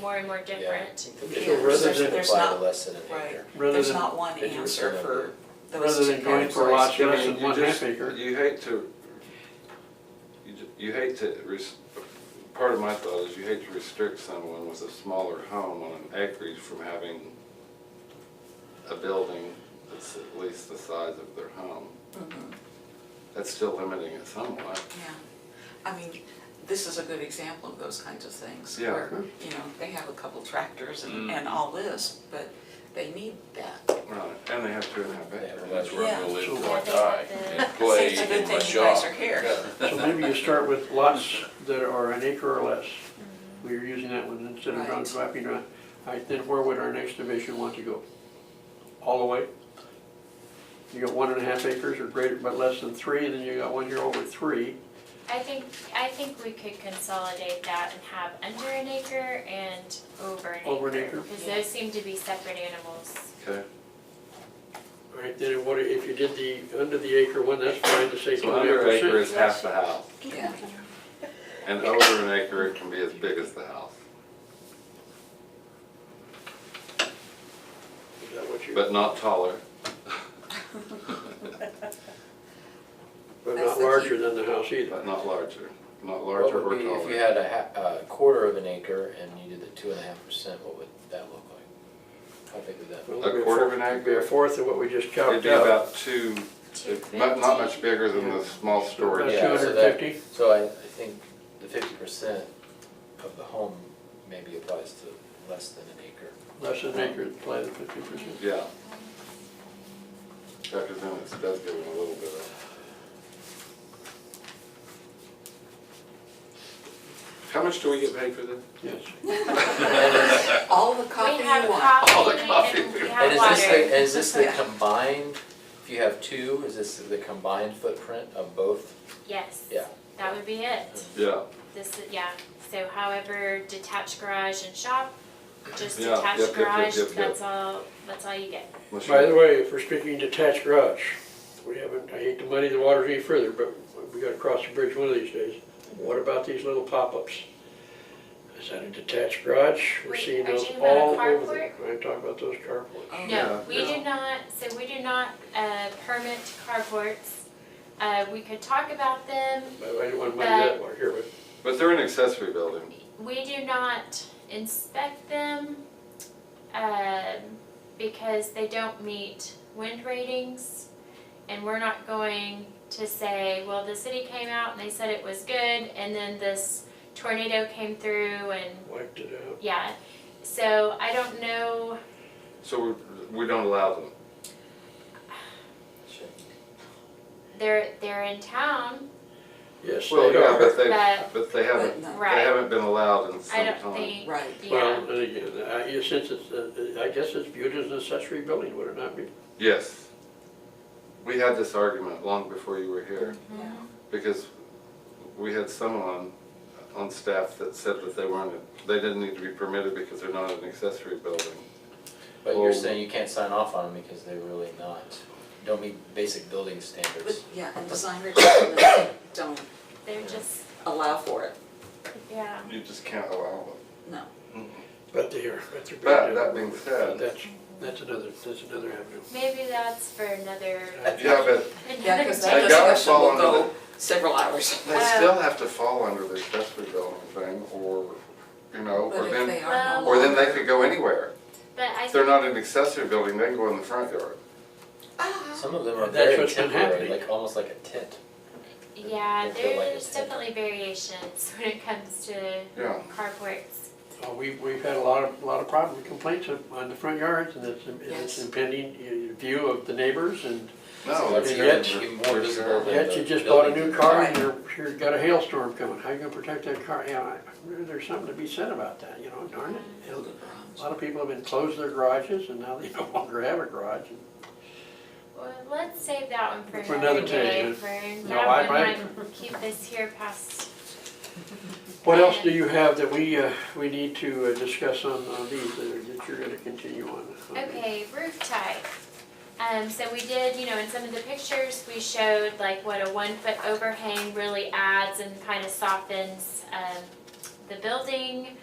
more and more different. So Yeah, rather there's- than- there's Apply the not, lesson in right. here. Rather there's than- not one Did you answer return for those Rather two than going for a categories. lot less I mean, than you one half just- acre. You hate to, you, ju- you hate to, res- part of my thought is you hate to restrict someone with a smaller home on an acreage from having a building that's at least the size of their home. Mhm, That's still limiting it somewhat. Yeah, I mean, this is a good example of those kinds of things. Yeah. Where, you know, they have a couple tractors and, Mm. and all this, but they need that. Right, and they have two and a half Yeah, acres. well, That's where I'm gonna live till I die and play Seems a in good my thing you guys shop. are here. So maybe you start with lots that are an acre or less. We are using that one instead of Right. dropping around. All right, then where would our next division want to go? All the way? You got one and a half acres or greater, but less than three, and then you got one here over three. I think, I think we could consolidate that and have under an acre and over an acre. Over an acre. Because those seem to be separate animals. Okay, All right, then what, if you did the, under the acre one, that's fine to say so under an twenty-five acre is percent. half the house, Yeah, and over an acre it can be as big as the house, Is that what you, but but not taller. That's not the key. larger than the house either. But not larger, not What larger or would be, taller. if you had a ha, a quarter of an acre and you did the two and a half percent, what would that look like? How big would that? be? Well, it'd be A quarter of an fourth- it'd Be a acre? fourth of what we just It'd chopped be out. about two, Two it- not, not much fifty. bigger than the small About storage. two Yeah, so hundred that- fifty. So I, I think the fifty percent of the home maybe applies to less than an acre. Less than acre, apply the fifty percent. Yeah. Yeah, cause then it does give it a little bit of. How much do we get paid for this? Yes. all the coffee We have you want. All coffee the coffee. and we And have is this water. the, is this the Yeah. combined, if you have two, is this the combined footprint of both? Yes. Yeah. That would be it. Yeah, This, is yeah, so however detached garage and shop, just Yeah, yep, detached yep, yep, garage, yep, yep. that's all, that's all you get. Unless By the you- way, if we're speaking detached garage, we haven't, I hate to muddy the waters any further, but we gotta cross the bridge one of these days. What about these little pop-ups? Is that a detached garage? We're Wait, seeing are you those talking about a all over the, I'm talking about those carports. Oh, No, Yeah, we do yeah. not, so we do not, uh, permit carports. Uh, we could talk about them, But I didn't wanna muddy Uh, that one here, but But they're an accessory building. we do not inspect them, um, because they don't meet wind ratings. And we're not going to say, well, the city came out and they said it was good, and then this tornado came through and, wiped it out. yeah. So I don't know, So we, we don't allow them. Sure. they're, they're in town, Yes, they Well, yeah, are. but they, But- but they But haven't, no, they Right. haven't been allowed in I some don't time. think, right, yeah, Well, and again, I, you- since it's, uh, I guess it's viewed as an accessory building, would it not be? Yes. We had this argument long before you were here. yeah. Mm-hmm. Because we had someone on staff that said that they weren't, they didn't need to be permitted because they're not an accessory building. But you're Well- saying you can't sign off on them because they're really not, don't meet basic building standards. But, yeah, and design requirements don't they're just, allow for it, yeah. You just can't allow them. no. But they are, but they're. But that being said, That's, that's another, that's another avenue. Maybe that's for another, yeah, but Yeah, another because I day. that gotta discussion will follow under go several hours. they still have to fall under the accessory building thing or, you know, But or if they then, are no or then they longer- could go anywhere. But I If they're not an accessory building, they can go in the front yard. Ah, Some of them are That's very what's been temporary, happening. like almost like a tent. Yeah, I feel like there's it's different. definitely variations when it comes to Yeah. carports. Uh, we, we've had a lot of, a lot of problems, complaints on, on the front yards, and it's, and it's Yes. impending uh, view of the neighbors, and No, It's it's yet- terrible. even more It's visible terrible. than- yet you just bought a new car, and you're, you're got a hailstorm coming, how you gonna protect that car? Yeah, I- there's something to be said about that, you know, darn it. It'll- A lot of people have been closed their garages, and now they no longer have a garage. Well, let's save that one for For another another day, day, for No, I- that one I- might keep this here past, What else do you have that we, uh, we need to uh, discuss on, on these that are- that you're gonna continue on? okay, roof type. Um, so we did, you know, in some of the pictures, we showed like what a one foot overhang really adds and kind of softens, um, the building.